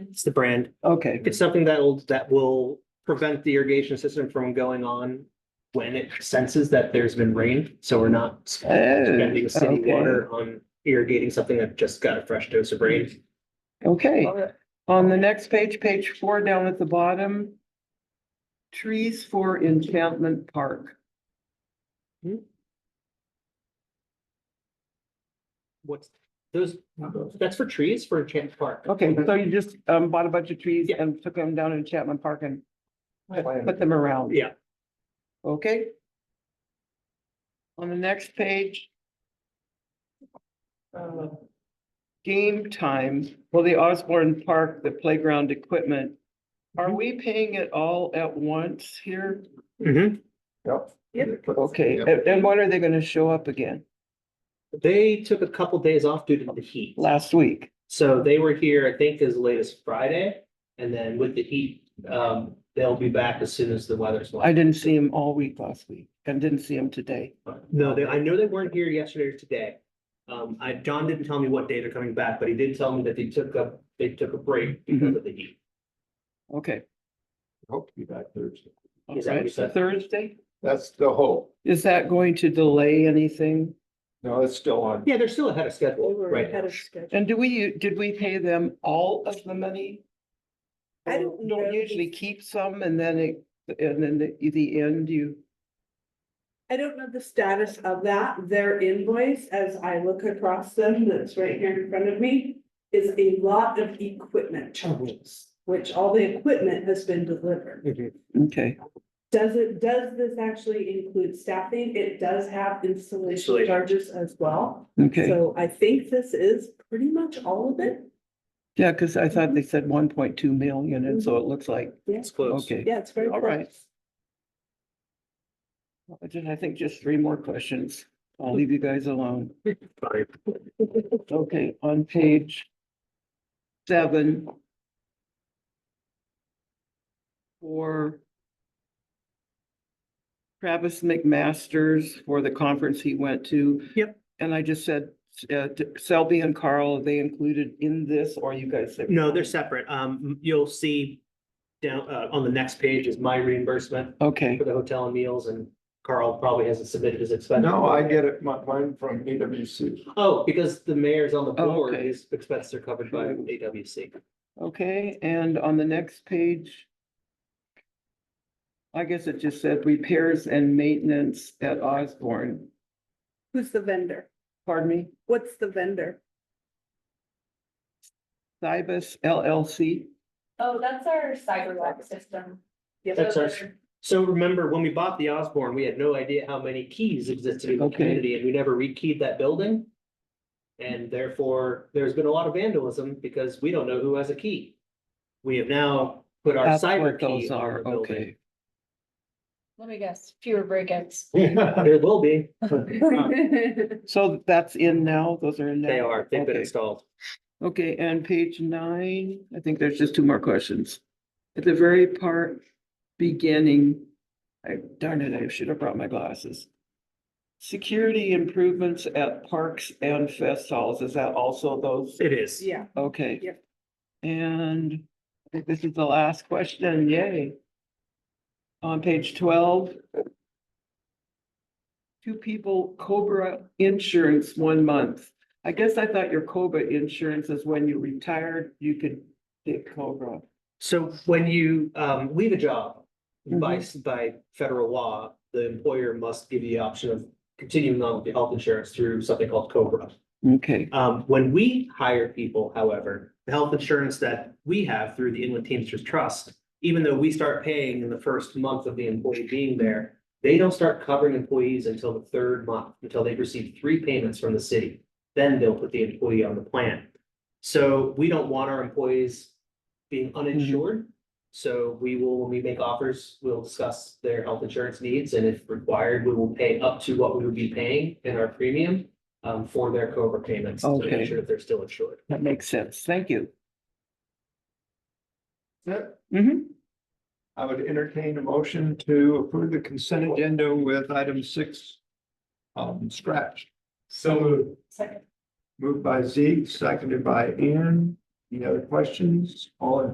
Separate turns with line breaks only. It's the brand.
Okay,
It's something that'll, that will prevent the irrigation system from going on when it senses that there's been rain. So we're not spending city
Oh, okay.
water on irrigating something that just got a fresh dose of rain.
okay. On the next page, page four down at the bottom. Trees for Enchantment Park.
What's those, that's for trees for Enchant Park.
Okay, so you just um bought a bunch of trees
Yeah.
and took them down in Enchantment Park and
But
put them around.
Yeah.
Okay. On the next page. uh, Game time, well, the Osborne Park, the playground equipment. Are we paying it all at once here?
Mhm.
Mm-hmm. Okay,
Yep.
and and when are they gonna show up again?
They took a couple days off due to the heat.
Last week?
So they were here, I think, as late as Friday. And then with the heat, um, they'll be back as soon as the weather's.
I didn't see him all week last week and didn't see him today.
No, they, I know they weren't here yesterday or today. Um, I, John didn't tell me what day they're coming back, but he did tell me that they took a, they took a break because of the heat.
Okay.
Hope to be back Thursday.
All
Is that what
right,
you said?
Thursday,
That's the hope.
is that going to delay anything?
No, it's still on.
Yeah, they're still ahead of schedule right now.
And do we, did we pay them all of the money?
I don't
Or
know.
Don't usually keep some and then it, and then the, the end you,
I don't know the status of that. Their invoice, as I look across them, that's right here in front of me, is a lot of equipment charges, which all the equipment has been delivered.
okay,
Does it, does this actually include staffing? It does have installation
Installation.
charges as well.
okay.
So I think this is pretty much all of it.
Yeah, cause I thought they said one point two million and
Mhm.
so it looks like,
It's close.
okay.
Yeah, it's very.
All right.
close.
I just- I think just three more questions. I'll leave you guys alone.
Fine.
Okay, on page seven. For Travis McMasters for the conference he went to.
Yep.
And I just said, uh, to Selby and Carl, are they included in this or you guys? said-
No, they're separate. Um, you'll see down, uh, on the next page is my reimbursement
Okay,
for the hotel and meals and Carl probably hasn't submitted his expense.
No, I get it, my, mine from AWC.
Oh, because the mayor's on the
Oh,
board,
okay.
his expenses are covered by AWC.
okay, and on the next page. I guess it just said repairs and maintenance at Osborne.
Who's the vendor?
Pardon me,
What's the vendor?
Cybus LLC.
Oh, that's our sidewalk system.
Yeah,
That's
Those
us.
are-
So remember, when we bought the Osborne, we had no idea how many keys existed in the
Okay.
community and we never rekeyed that building. And therefore, there's been a lot of vandalism because we don't know who has a key. We have now put our
That's
cyber
what
key
those
on
are,
the building.
okay.
Let me guess, fewer breakouts.
There will be,
So that's in now, those are in now?
they are, they've been
Okay.
installed.
Okay, and page nine, I think there's just two more questions. At the very part, beginning, I darn it, I should have brought my glasses. Security improvements at parks and fest halls, is that also those?
It is.
Yeah,
Okay.
Yep.
And I think this is the last question, yay. On page twelve. Two people Cobra insurance one month. I guess I thought your Cobra insurance is when you retired, you could get Cobra.
So when you um leave a job, by
Mm-hmm.
by federal law, the employer must give you the option of continuing on with the health insurance through something called Cobra.
Okay,
Um, when we hire people, however, the health insurance that we have through the Inland Teamsters Trust, even though we start paying in the first month of the employee being there, they don't start covering employees until the third month, until they've received three payments from the city. Then they'll put the employee on the plan. So we don't want our employees being uninsured. So we will, when we make offers, we'll discuss their health insurance needs, and if required, we will pay up to what we would be paying in our premium um, for their Cobra payments to
Okay.
make sure that they're still insured.
that makes sense. Thank you.
Yep.
Mhm.
I would entertain a motion to approve the consent agenda with item six. Um, scratch. So
Second.
moved by Zeke, seconded by Ann. Any other questions? All in